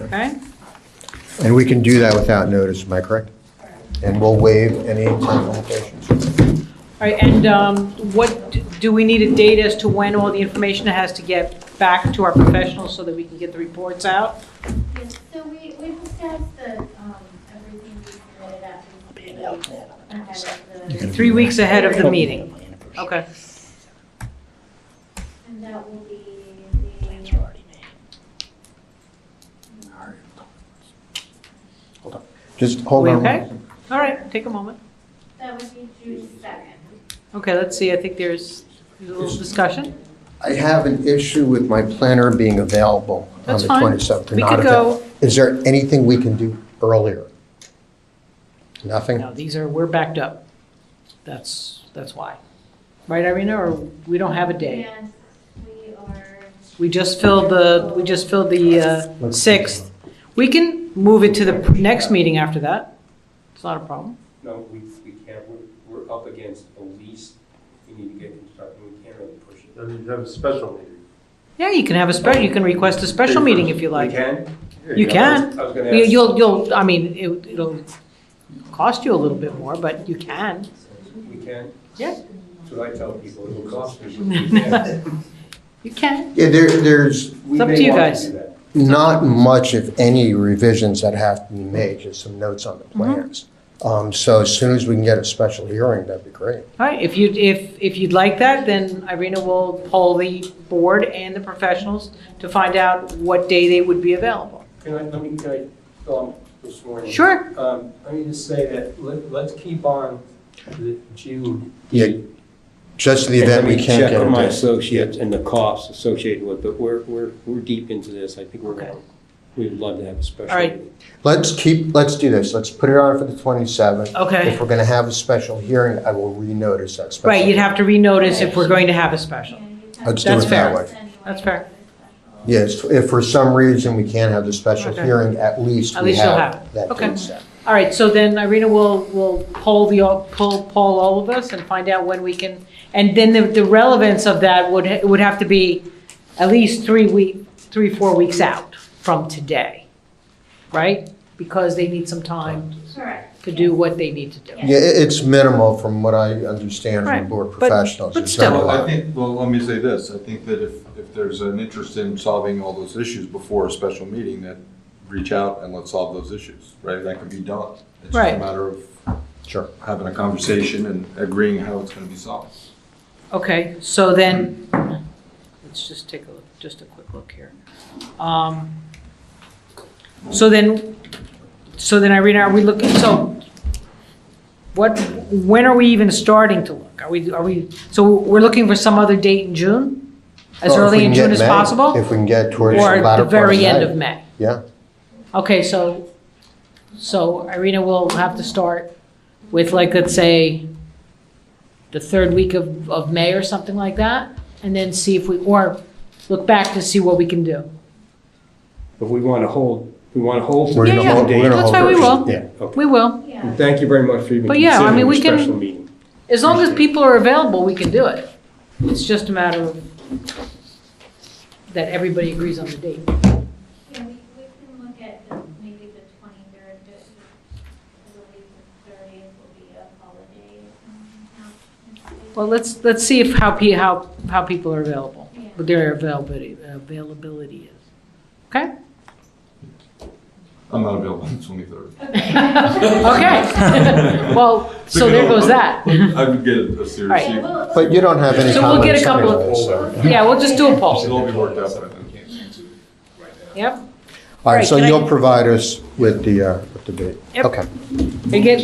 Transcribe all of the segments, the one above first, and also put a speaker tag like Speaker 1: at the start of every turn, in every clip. Speaker 1: Okay?
Speaker 2: And we can do that without notice, am I correct? And we'll waive any time limitations.
Speaker 1: All right, and um, what, do we need a date as to when all the information has to get back to our professionals so that we can get the reports out?
Speaker 3: Yes, so we, we discussed the, um, everything we submitted after. we did ahead of the-
Speaker 1: Three weeks ahead of the meeting? Okay.
Speaker 3: And that will be the. Plans are already
Speaker 2: Just hold
Speaker 1: We
Speaker 2: on.
Speaker 1: okay? All right, take a moment.
Speaker 3: made. That would be June second.
Speaker 1: Okay, let's see, I think there's a little discussion.
Speaker 2: I have an issue with my planner being available on
Speaker 1: That's
Speaker 2: the
Speaker 1: fine.
Speaker 2: 27th. or
Speaker 1: We
Speaker 2: not
Speaker 1: could
Speaker 2: avail-
Speaker 1: go-
Speaker 2: Is there anything we can do earlier? Nothing?
Speaker 1: No, these are, we're backed up. That's, that's why. Right, Irina, or we don't have a day?
Speaker 3: And we are,
Speaker 1: We just filled the, we just filled the uh, 6th. We can move it to the next meeting after that. It's not a problem.
Speaker 4: No, we, we can't, we're, we're up against a lease, we need to get construction, we can't really push it.
Speaker 5: Then you have a special meeting.
Speaker 1: Yeah, you can have a special, you can request a special meeting if you
Speaker 4: We
Speaker 1: like.
Speaker 4: can?
Speaker 1: You
Speaker 4: I
Speaker 1: can.
Speaker 4: was- I was
Speaker 1: You-
Speaker 4: gonna ask,
Speaker 1: You'll, you'll, I mean, it- it'll cost you a little bit more, but you can.
Speaker 4: we can?
Speaker 1: Yeah.
Speaker 4: That's what I tell people, it will cost me. but we can.
Speaker 1: You can.
Speaker 2: Yeah, there, there's
Speaker 4: We
Speaker 1: It's up
Speaker 4: may
Speaker 1: to you
Speaker 4: want
Speaker 1: guys.
Speaker 4: do that.
Speaker 2: not much, if any, revisions that have to be made, just some notes on the
Speaker 1: Mm-hmm.
Speaker 2: plans. Um, So as soon as we can get a special hearing, that'd be great.
Speaker 1: All right, if you, if, if you'd like that, then Irina will poll the board and the professionals to find out what day they would be available.
Speaker 4: Can I, let me, can I, um, this morning?
Speaker 1: Sure.
Speaker 4: Um, let me just say that, let, let's keep on the June.
Speaker 2: Yeah, Just in the event we can't
Speaker 4: Check
Speaker 2: get
Speaker 4: with
Speaker 2: a
Speaker 4: my
Speaker 2: date.
Speaker 4: associates and the costs associated with, but we're, we're, we're deep into this, I think we're
Speaker 1: Okay.
Speaker 4: gonna, we'd love to have a special.
Speaker 1: All right.
Speaker 4: meeting.
Speaker 2: Let's keep, let's do this. Let's put it on for the 27th.
Speaker 1: Okay.
Speaker 2: If we're going to have a special hearing, I will renotice that special.
Speaker 1: Right, you'd have to renotice if we're going to have a
Speaker 3: you
Speaker 1: special.
Speaker 3: know, you have.
Speaker 2: Let's
Speaker 1: do That's it that fair.
Speaker 2: way.
Speaker 3: Anyway,
Speaker 1: That's fair.
Speaker 2: Yes, if for some reason we can't have the special
Speaker 1: Okay.
Speaker 2: hearing, at least
Speaker 1: At
Speaker 2: we
Speaker 1: least you'll
Speaker 2: have
Speaker 1: have
Speaker 2: that
Speaker 1: Okay.
Speaker 2: date set.
Speaker 1: All right, so then Irina will, will poll the, poll, poll all of us and find out when we can, and then the the relevance of that would, it would have to be at least three week, three, four weeks out from today, right? Because they need some time
Speaker 3: Correct.
Speaker 1: to do what they need to do.
Speaker 2: Yeah, it- it's minimal from what I understand
Speaker 1: Right,
Speaker 2: from board
Speaker 1: but-
Speaker 2: professionals.
Speaker 1: but
Speaker 2: It's not a
Speaker 1: still.
Speaker 6: Well, I
Speaker 2: lot.
Speaker 6: think, well, let me say this, I think that if, if there's an interest in solving all those issues before a special meeting, then reach out and let's solve those issues, right? That can be done. It's just
Speaker 1: Right.
Speaker 6: a matter of
Speaker 2: Sure.
Speaker 6: having a conversation and agreeing how it's gonna be solved.
Speaker 1: Okay, so then, let's just take a, look- just a quick look here. Um, So then, so then Irene, are we looking, so what, when are we even starting to look? Are we, are we, so we're looking for some other date in June? As
Speaker 2: Well, Oh, if we
Speaker 1: early in
Speaker 2: can get
Speaker 1: June as
Speaker 2: May,
Speaker 1: possible?
Speaker 2: If we can get towards the
Speaker 1: Or
Speaker 2: latter
Speaker 1: at
Speaker 2: part
Speaker 1: the
Speaker 2: of
Speaker 1: very end of
Speaker 2: May.
Speaker 1: May?
Speaker 2: Yeah,
Speaker 1: Okay, so, so Irina will have to start with like, let's say, the third week of, of May or something like that, and then see if we, or look back to see what we can do.
Speaker 4: But we want to hold, we want to hold.
Speaker 2: We're
Speaker 1: Yeah,
Speaker 2: gonna
Speaker 1: yeah.
Speaker 2: hold- we're gonna
Speaker 1: That's
Speaker 2: hold
Speaker 1: why we
Speaker 2: first.
Speaker 1: will.
Speaker 2: Yeah.
Speaker 4: Okay.
Speaker 1: We will.
Speaker 3: Yeah.
Speaker 4: Thank you very much for even
Speaker 1: But yeah, I mean,
Speaker 4: considering
Speaker 1: we
Speaker 4: a
Speaker 1: can-
Speaker 4: special meeting.
Speaker 1: As long as people are available, we can do it. It's just a matter of that everybody agrees on the date.
Speaker 3: Yeah, we, we can look at the, maybe the twenty-third, just, I believe the thirtieth will be a holiday. um, out in-
Speaker 1: Well, let's, let's see if how, pe- how, how people are available,
Speaker 3: Yeah.
Speaker 1: what their availability, availability is. Okay?
Speaker 6: I'm not available on the twenty-third.
Speaker 1: Okay. Well, so there goes that.
Speaker 6: I would get a serious,
Speaker 1: Right.
Speaker 3: Yeah,
Speaker 6: email.
Speaker 3: we'll-
Speaker 2: but you don't have any
Speaker 1: So we'll get a
Speaker 2: comments
Speaker 1: couple of-
Speaker 2: anyway, so.
Speaker 1: Yeah, we'll just do a poll.
Speaker 6: it'll all be worked out by then.
Speaker 1: Yep.
Speaker 2: All right, so
Speaker 1: Right, can I-
Speaker 2: you'll provide us with the, uh, with the date.
Speaker 1: Yep.
Speaker 2: Okay.
Speaker 1: And get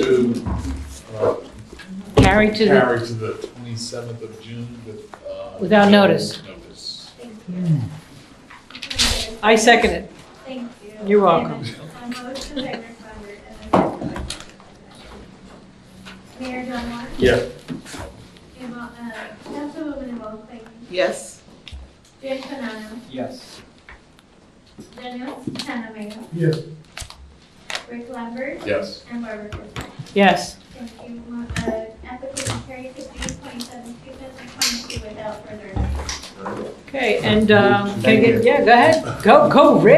Speaker 1: carried to the,
Speaker 7: carry to the 27th of June with. uh,
Speaker 1: Without notice.
Speaker 7: Notice.
Speaker 3: Thank you.
Speaker 1: I second it.
Speaker 3: Thank you.
Speaker 1: You're welcome.
Speaker 3: And a motion by Rick Runder and a second by Jim Monahan. Mayor John Martin?
Speaker 4: Yeah.
Speaker 3: Jim, uh, Councilwoman Yvonne Clayton?
Speaker 8: Yes.
Speaker 3: Jim Panano?
Speaker 4: Yes.
Speaker 3: Daniel Sanamayo?
Speaker 5: Yes.
Speaker 3: Rick Lambert?
Speaker 7: Yes.
Speaker 3: And Barbara Gordon?
Speaker 1: Yes.
Speaker 3: Thank you. Mo- uh, Application carried to June twenty-seventh, two thousand twenty-two without further notice.
Speaker 1: Okay, and um, can I get, yeah, go ahead. Go, go, Rick.